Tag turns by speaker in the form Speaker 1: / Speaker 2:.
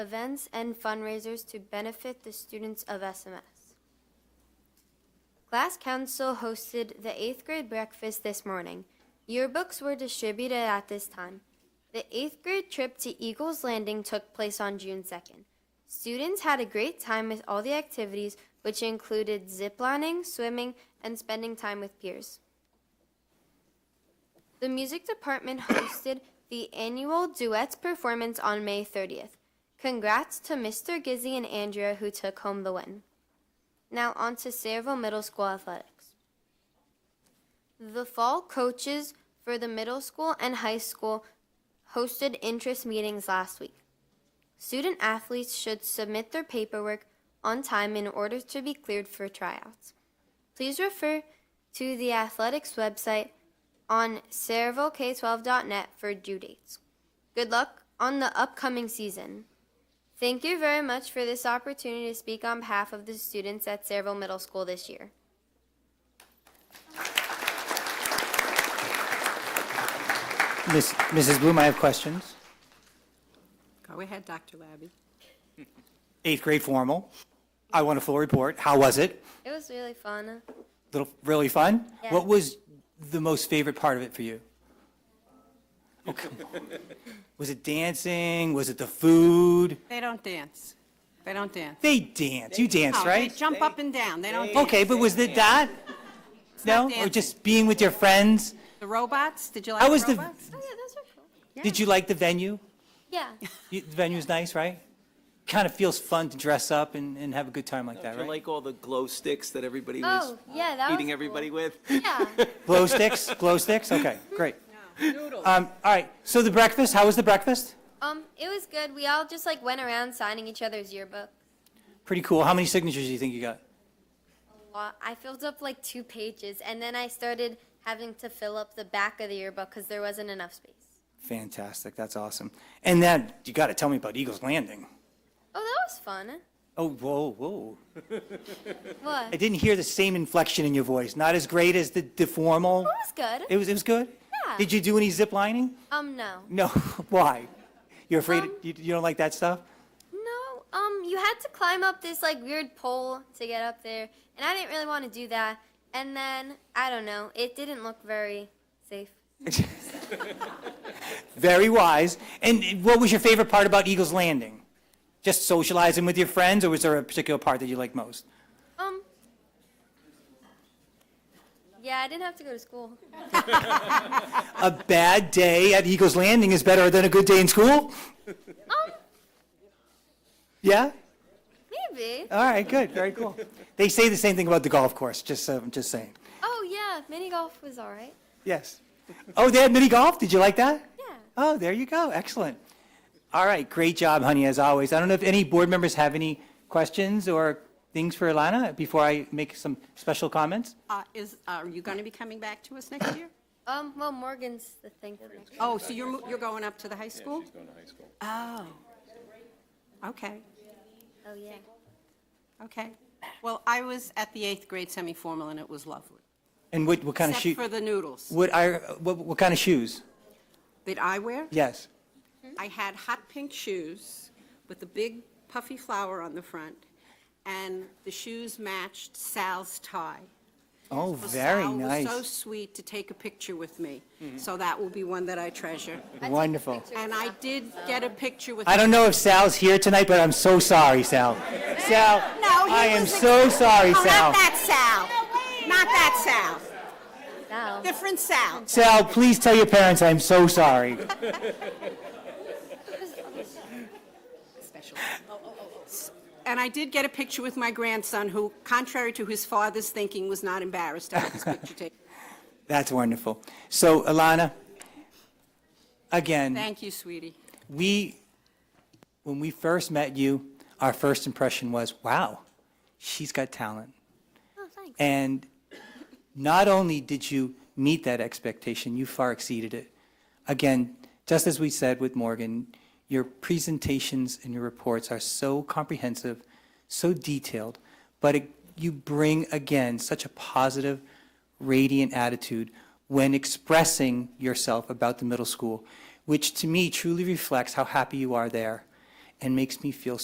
Speaker 1: events and fundraisers to benefit the students of SMS. Class Council hosted the eighth grade breakfast this morning. Yearbooks were distributed at this time. The eighth grade trip to Eagles Landing took place on June 2nd. Students had a great time with all the activities, which included ziplining, swimming, and spending time with peers. The music department hosted the annual duets performance on May 30th. Congrats to Mr. Gizzy and Andrea who took home the win. Now on to Sayreville Middle School athletics. The fall coaches for the middle school and high school hosted interest meetings last week. Student athletes should submit their paperwork on time in order to be cleared for tryouts. Please refer to the athletics website on servalk12.net for due dates. Good luck on the upcoming season. Thank you very much for this opportunity to speak on behalf of the students at Serval Middle School this year.
Speaker 2: Miss- Mrs. Bloom, I have questions.
Speaker 3: Go ahead, Dr. Labby.
Speaker 2: Eighth grade formal. I want a full report. How was it?
Speaker 1: It was really fun.
Speaker 2: Little, really fun?
Speaker 1: Yeah.
Speaker 2: What was the most favorite part of it for you? Okay. Was it dancing? Was it the food?
Speaker 3: They don't dance. They don't dance.
Speaker 2: They danced. You danced,
Speaker 3: No, they
Speaker 2: right?
Speaker 3: jump up and down. They don't,
Speaker 2: Okay, but was it that?
Speaker 3: not
Speaker 2: No? Or
Speaker 3: dancing.
Speaker 2: just being with your friends?
Speaker 3: the robots, did you like
Speaker 2: How was
Speaker 3: the
Speaker 2: the,
Speaker 3: robots?
Speaker 1: Oh, yeah, those were cool.
Speaker 2: did you like the venue?
Speaker 1: Yeah.
Speaker 2: You- The venue's nice, right? Kind of feels fun to dress up and, and have a good time like that,
Speaker 4: Do you
Speaker 2: right?
Speaker 4: like all the glow sticks that everybody was
Speaker 1: Oh, yeah, that was
Speaker 4: eating everybody
Speaker 1: cool.
Speaker 4: with?
Speaker 1: Yeah.
Speaker 2: Glow sticks? Glow sticks? Okay, great.
Speaker 3: Noodles.
Speaker 2: Um, all right, so the breakfast, how was the breakfast?
Speaker 1: Um, it was good. We all just like went around signing each other's yearbook.
Speaker 2: Pretty cool. How many signatures do you think you got?
Speaker 1: A lot. I filled up like two pages, and then I started having to fill up the back of the yearbook because there wasn't enough space.
Speaker 2: Fantastic. That's awesome. And then you got to tell me about Eagles Landing.
Speaker 1: Oh, that was fun.
Speaker 2: Oh, whoa, whoa.
Speaker 1: What?
Speaker 2: I
Speaker 1: It
Speaker 2: didn't hear the same inflection in your voice. Not as great as the, the formal.
Speaker 1: was good.
Speaker 2: It was, it was good?
Speaker 1: Yeah.
Speaker 2: Did you do any zip lining?
Speaker 1: um, no.
Speaker 2: No. Why? You're afraid,
Speaker 1: Um,
Speaker 2: you, you don't like that stuff?
Speaker 1: No, um, you had to climb up this like weird pole to get up there, and I didn't really want to do that. And then I don't know, it didn't look very safe.
Speaker 2: Very wise. And what was your favorite part about Eagles Landing? Just socializing with your friends, or was there a particular part that you liked most?
Speaker 1: Um, yeah, I didn't have to go to school.
Speaker 2: A bad day at Eagles Landing is better than a good day in school?
Speaker 1: Um,
Speaker 2: Yeah?
Speaker 1: maybe.
Speaker 2: All right, good, very cool. They say the same thing about the golf course, just, so- I'm just saying.
Speaker 1: Oh yeah, mini golf was all right.
Speaker 2: Yes. Oh, they had mini golf, did you like that?
Speaker 1: Yeah.
Speaker 2: Oh, there you go, excellent. All right, great job, honey, as always. I don't know if any board members have any questions or things for Alana before I make some special comments?
Speaker 3: Uh, Is, are you going to be coming back to us next year?
Speaker 1: Um, well, Morgan's the thing. for next-
Speaker 3: Oh, so you're, mo- you're going up to the high school? she's going to high school. Oh, okay,
Speaker 1: Oh yeah.
Speaker 3: okay. Well, I was at the eighth grade semi-formal, and it was lovely.
Speaker 2: And what, what kind of shoe,
Speaker 3: Except for the noodles
Speaker 2: what are, what, what kind of shoes?
Speaker 3: that I wear.
Speaker 2: Yes.
Speaker 3: I had hot pink shoes with a big puffy flower on the front, and the shoes matched Sal's tie.
Speaker 2: Oh,
Speaker 3: Well,
Speaker 2: very
Speaker 3: Sal was so
Speaker 2: nice,
Speaker 3: sweet to take a picture with me, so that will be one that I treasure.
Speaker 2: wonderful.
Speaker 3: And I did get a picture with.
Speaker 2: I don't know if Sal's here tonight, but I'm so sorry, Sal. Sal,
Speaker 3: No, he
Speaker 2: I am
Speaker 3: was a-
Speaker 2: so sorry,
Speaker 3: Oh,
Speaker 2: Sal.
Speaker 3: Not that Sal. Not that
Speaker 1: Now.
Speaker 3: Sal. Different Sal.
Speaker 2: Sal, please tell your parents I'm so sorry.
Speaker 3: Special. And I did get a picture with my grandson, who, contrary to his father's thinking, was not embarrassed to have his picture taken.
Speaker 2: That's wonderful. So, Alana, again,
Speaker 3: Thank you, sweetie.
Speaker 2: we, when we first met you, our first impression was, wow, she's got talent.
Speaker 1: Oh thanks.
Speaker 2: And not only did you meet that expectation, you far exceeded it. Again, just as we said with Morgan, your presentations and your reports are so comprehensive, so detailed, but it, you bring again such a positive, radiant attitude when expressing yourself about the middle school, which to me truly reflects how happy you are there and makes me feel